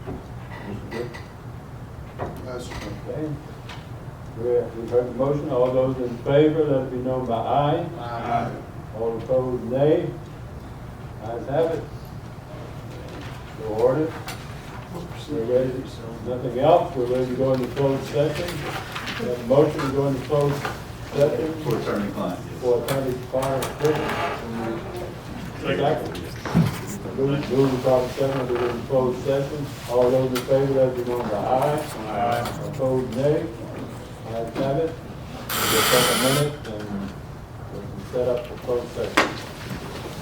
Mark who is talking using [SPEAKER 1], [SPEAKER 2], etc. [SPEAKER 1] Second.
[SPEAKER 2] Motion.
[SPEAKER 3] Okay. We have, we've heard the motion, all those in favor, let it be known by aye.
[SPEAKER 2] Aye.
[SPEAKER 3] All opposed, nay. Ayes have it. So ordered. We're ready, nothing else, we're ready to go into closed session. We have a motion to go into closed session
[SPEAKER 4] For attorney-client, yes.
[SPEAKER 3] for attorney fire equipment. Second. Move, move the proper second, we're in closed session. All those in favor, let it be known by aye. Aye. Opposed, nay. Ayes have it. We'll take a minute and we can set up for closed session.